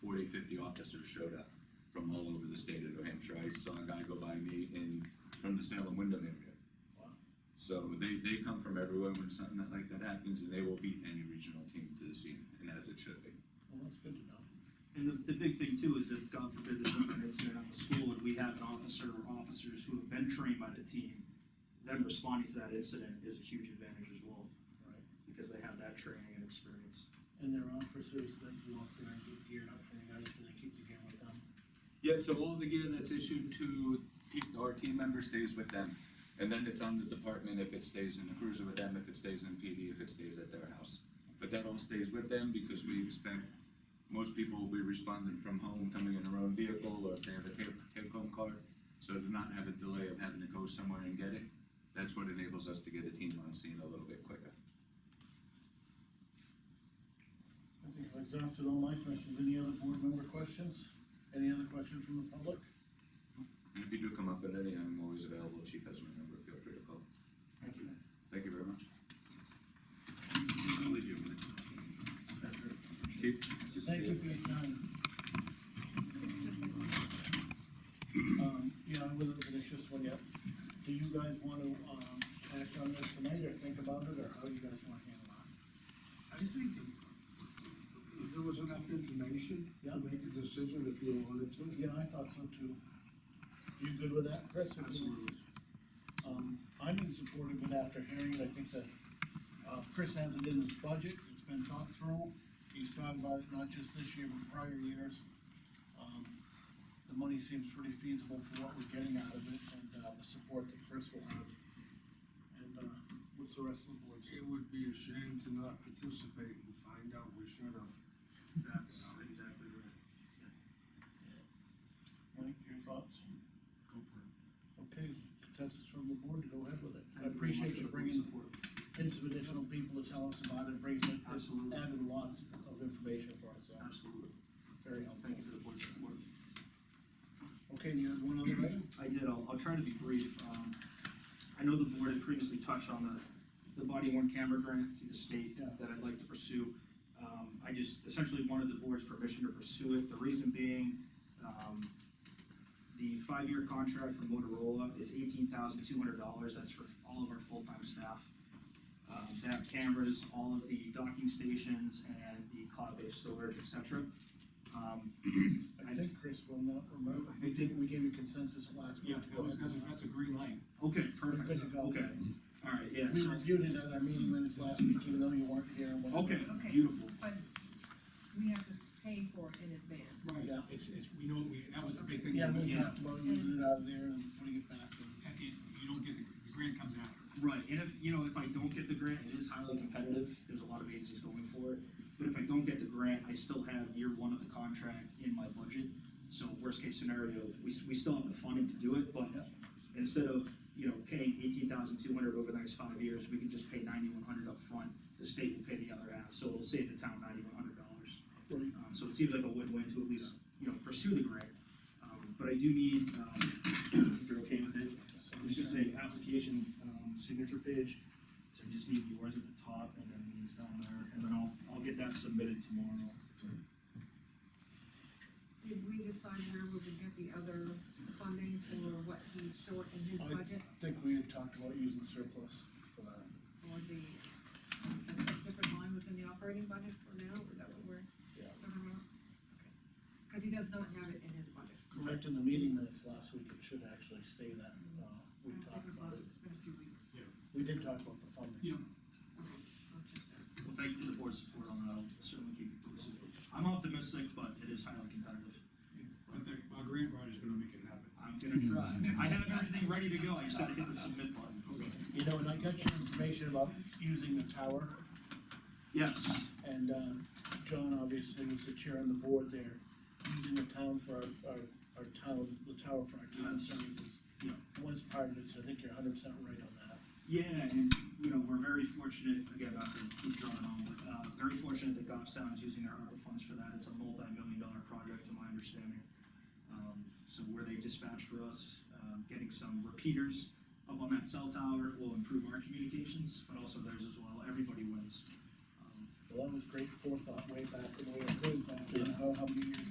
40, 50 officers showed up from all over the state of New Hampshire. I saw a guy go by me in, from the Salem Wyndham area. Wow. So they, they come from everywhere when something that- like that happens, and they will beat any regional team to the scene, and as it should be. Well, that's good to know. And the, the big thing too is if, God forbid, there's an incident at the school and we have an officer or officers who have been trained by the team, them responding to that incident is a huge advantage as well, Right. because they have that training and experience. And there are officers that go up there and get geared up for you guys, do they keep the gear with them? Yep, so all the gear that's issued to peop- our team member stays with them. And then it's on the department if it stays in the cruiser with them, if it stays in PD, if it stays at their house. But that all stays with them because we expect most people will be responding from home, coming in their own vehicle, or if they have a take, take-home car. So to not have a delay of having to go somewhere and get it, that's what enables us to get a team on scene a little bit quicker. I think I've exhausted all my questions, any other board member questions? Any other questions from the public? And if you do come up with any, I'm always available, chief has my number, feel free to call. Thank you. Thank you very much. I'll leave you a minute. That's it. Chief? good to see Thank you for your time. Um, yeah, I wasn't finished this one yet. Do you guys wanna, um, act on this tonight, or think about it, or how do you guys wanna handle it? I think there was enough information Yeah. to make a decision if you wanted to. Yeah, I thought so too. You good with that, Chris? Absolutely. Um, I'm in support of it after hearing, it. I think that, uh, Chris has it in his budget, it's been thought through. He's thought about it not just this year, but prior years. Um, the money seems pretty feasible for what we're getting out of it and, uh, the support that Chris will have. And, uh, what's the rest of the board? It would be a shame to not participate and find out we should have. That's exactly right. Mike, your thoughts? Go for it. Okay, consensus from the board to go ahead with it. I Thank very much appreciate for you the bringing support. in some additional people to tell us about it, brings it, it's Absolutely. added a lot of information for us, so Absolutely. very helpful. Thank you for the board's support. Okay, and you had one other item? I did, I'll, I'll try to be brief. Um, I know the board had previously touched on the, the body worn camera grant through the state Yeah. that I'd like to pursue. Um, I just essentially wanted the board's permission to pursue it. The reason being, um, the five-year contract from Motorola is eighteen thousand two hundred dollars. That's for all of our full-time staff. Um, to have cameras, all of the docking stations and the cloud-based storage, et cetera. Um, I think Chris will not remember, we did, we gave you consensus last week. Yeah, to go ahead and- a green light. Okay, We're good to perfect, go. okay, all right, yeah, We so, reviewed it at our meeting minutes last week, even though you weren't here. and whatever. okay, Okay. beautiful, But we have to s- pay for it in advance. Right. Yeah. It's, it's, we know, we, that was the big thing. Yeah, You we Yeah. talked about using it out of there and putting it back in. can't- You don't get, the the grant comes after. right, and if, you know, if I don't get the grant, it is highly competitive, there's a lot of agencies going for it. But if I don't get the grant, I still have year one of the contract in my budget, so worst case scenario, we, s- we still have the funding to do it, but Yeah. instead of, you know, paying eighteen thousand two hundred over the next five years, we could just pay ninety-one hundred upfront, the state will pay the other half, so it'll save the town ninety-one hundred dollars. Right. Um, so it seems like a win-win to at least, you know, pursue the grant. Um, but I do need, um, if you're okay with it, it's just a application, um, signature page. So I just need yours at the top and then these down there, and then I'll, I'll get that submitted tomorrow. Did we decide where we would get the other funding for what he's short in his I- budget I think we had talked about using surplus for that. or the, a different line within the operating budget for now? Is that what we're? Yeah. talking about? Okay. Cause he does not have it in his budget. In fact, in the meeting minutes last week, it should actually say that, uh, I we don't think talked it was about it. last week, it's been a few weeks. Yeah. We did talk about the funding. Yeah. Okay, I'll check that. Well, thank you for the board's support on that, I'll certainly keep you posted. I'm optimistic, but it is highly competitive. But the, our grant writer's gonna make it happen. I'm gonna try. I have everything ready to go, I just gotta hit the submit button. You know, and I got your information about using the tower, Yes, and, um, John obviously was the chair on the board there, using the town for our, our, our town, the tower for our town Yes. services. Yeah. Was part of it, so I think you're hundred percent right on that. Yeah, and, you know, we're very fortunate, again, not to keep drawing on, but, uh, very fortunate that Goffstown is using their ARPA funds for that. It's a multi-million dollar project, to my understanding. Um, so where they dispatch for us, um, getting some repeaters up on that cell tower will improve our communications, but also theirs as well. Everybody wins. Um, Well, that was great forethought way back when we approved that, I don't know how many years ago